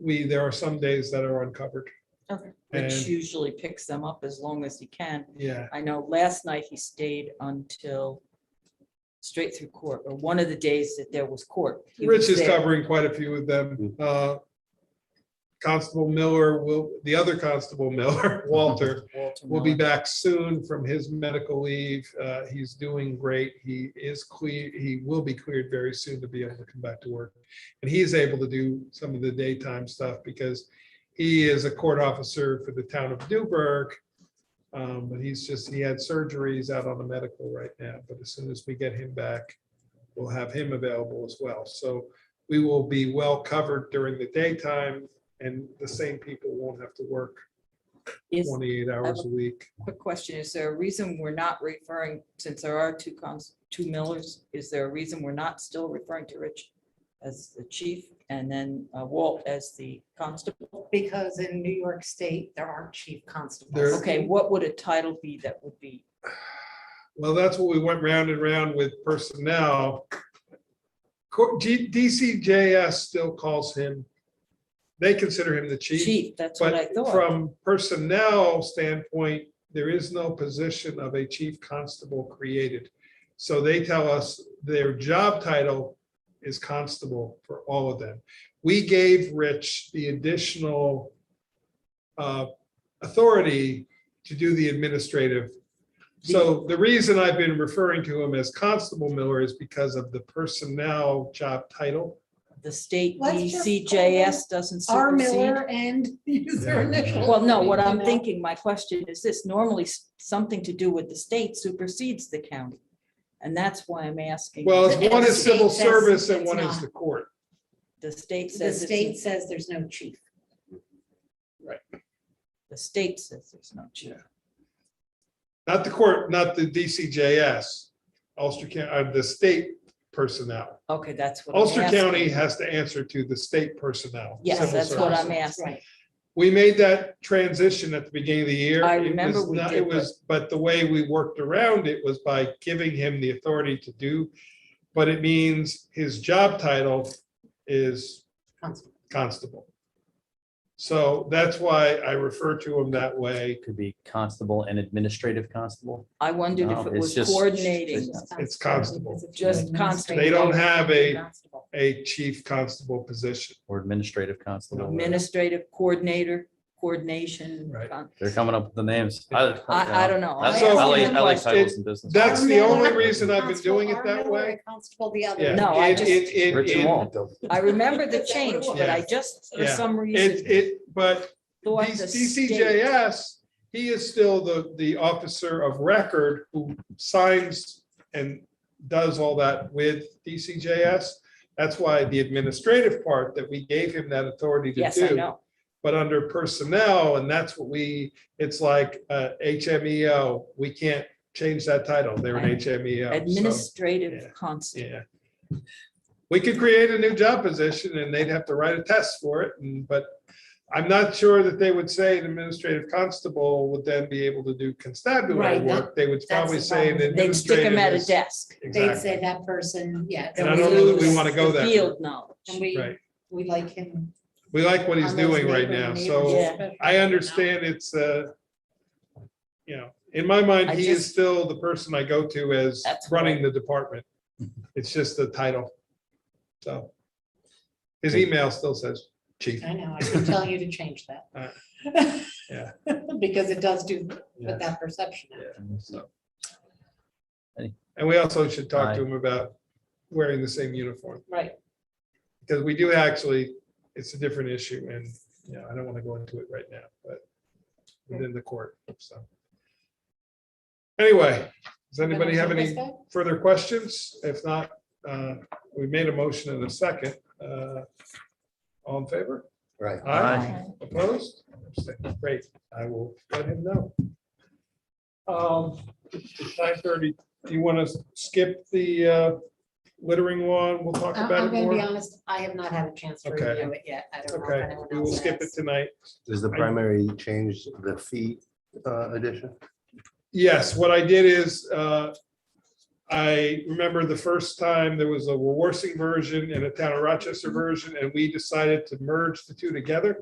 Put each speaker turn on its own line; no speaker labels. we, there are some days that are uncovered.
Okay.
And,
Rich usually picks them up as long as he can.
yeah,
I know last night he stayed until straight through court, or one of the days that there was court. he was
Rich is
there.
covering quite a few of them. Uh, Constable Miller will, the other Constable Miller, Walter,
Walter
will be
Miller.
back soon from his medical leave. Uh, He's doing great. He is clear, he will be cleared very soon to be able to come back to work. And he's able to do some of the daytime stuff because he is a court officer for the town of Newburgh. Um, But he's just, he had surgeries out on the medical right now, but as soon as we get him back, we'll have him available as well. So we will be well covered during the daytime and the same people won't have to work
Is,
28 hours a week.
quick question, is there a reason we're not referring, since there are two cons, two Millers, is there a reason we're not still referring to Rich as the chief and then uh, Walt as the constable?
Because in New York State, there aren't chief
There-
constables.
Okay, what would a title be that would be?
Well, that's what we went round and round with personnel. Co- G- DCJS still calls him, they consider him the chief.
Chief, that's what I
But
thought.
from personnel standpoint, there is no position of a chief constable created. So they tell us their job title is constable for all of them. We gave Rich the additional uh, authority to do the administrative. So the reason I've been referring to him as Constable Miller is because of the personnel job title.
The state E
Let's just
DCJS doesn't
R
supersede.
Miller and use their
Yeah.
initials.
Well, no, what
You
I'm
know?
thinking, my question is this, normally s- something to do with the state supersedes the county. And that's why I'm asking.
Well, it's
And
one
the
is civil
state says
service and
it's
one is
not.
the court.
The state
The
says,
state
it's-
says there's no chief.
the state says there's no chief.
Not the court, not the DCJS, Ulster County, uh, the state personnel.
Okay, that's what. I'm
Ulster County
asking.
has to answer to the state personnel.
Yes,
civil
that's what I'm
service.
asking.
Right.
We made that transition at the beginning of the year.
I
It was
remember we
not-
did,
It was, but the way we worked around it was by giving him the authority to do. But it means his job title is
Constable.
constable. So that's why I refer to him that way.
Could be constable and administrative constable.
I wondered if
No,
it
it's
was
just-
coordinating.
it's-
It's constable.
Just constable.
They don't have a,
Constable.
a chief constable position.
Or administrative constable.
Administrative coordinator, coordination.
Right.
con-
They're coming up with the names.
I, I don't know. I'm
I
So-
asking
like,
the
I like
question.
titles and business.
That's the
Miller.
only reason I've been
Constable
doing it
R.
that
Miller,
way.
and Constable the
Yeah.
other.
No, I
In-
just-
in- in-
Rich
in-
and Walt.
I remember the change, but I
Yeah.
just, for
Yeah.
some
It,
reason,
it, but
thought the state.
DCJS, he is still the, the officer of record who signs and does all that with DCJS. That's why the administrative part that we gave him that authority to do.
Yes, I know.
but under personnel, and that's what we, it's like uh, HMEO, we can't change that title, they're an HMEO. so, yeah.
Administrative constable.
Yeah. We could create a new job position and they'd have to write a test for it, and, but I'm not sure that they would say an administrative constable would then be able to do constabulary
Right, that-
work, they would probably
the
say an
problem.
They'd stick
administrative
them at a
is-
desk.
They'd say
Exactly.
that person, yeah.
And
that
I
we
don't know that we
lose.
wanna go
The
that
Field knowledge.
And we,
Right.
we like him.
We like what he's
on those
doing right now,
neighborhood
so.
neighbors,
Yeah.
I
especially.
understand it's, uh, you know, in my mind,
I
he is
just-
still the person I go to as
That's
running
right.
the department. It's just the title. So his email still says chief.
I know, I've been telling you to change
Uh,
that.
yeah.
Because it does do
Yeah.
with that perception. out.
so. And we also should talk
Aye.
to him about wearing the same uniform
Right.
because we do actually, it's a different issue and, you know, I don't want to go into it right now, but within the court, so. Anyway, does anybody have any? further questions? If not, uh, we made a motion in a second. Uh, All in favor?
Right.
Aye. Opposed? Abstained. Great, I will let him know. Um, Nine thirty, do you want to skip the uh, littering one? We'll talk
I-
about
Uh, I'm
it
gonna be
more.
honest, I have not had a chance to
Okay.
review it yet. I don't know if
Okay,
anyone
we will
else
skip it
has.
tonight.
Is the
I-
primary change the fee uh, addition?
Yes, what I did is uh, I remember the first time there was a Warsing version and a Town of Rochester version, and we decided to merge the two together.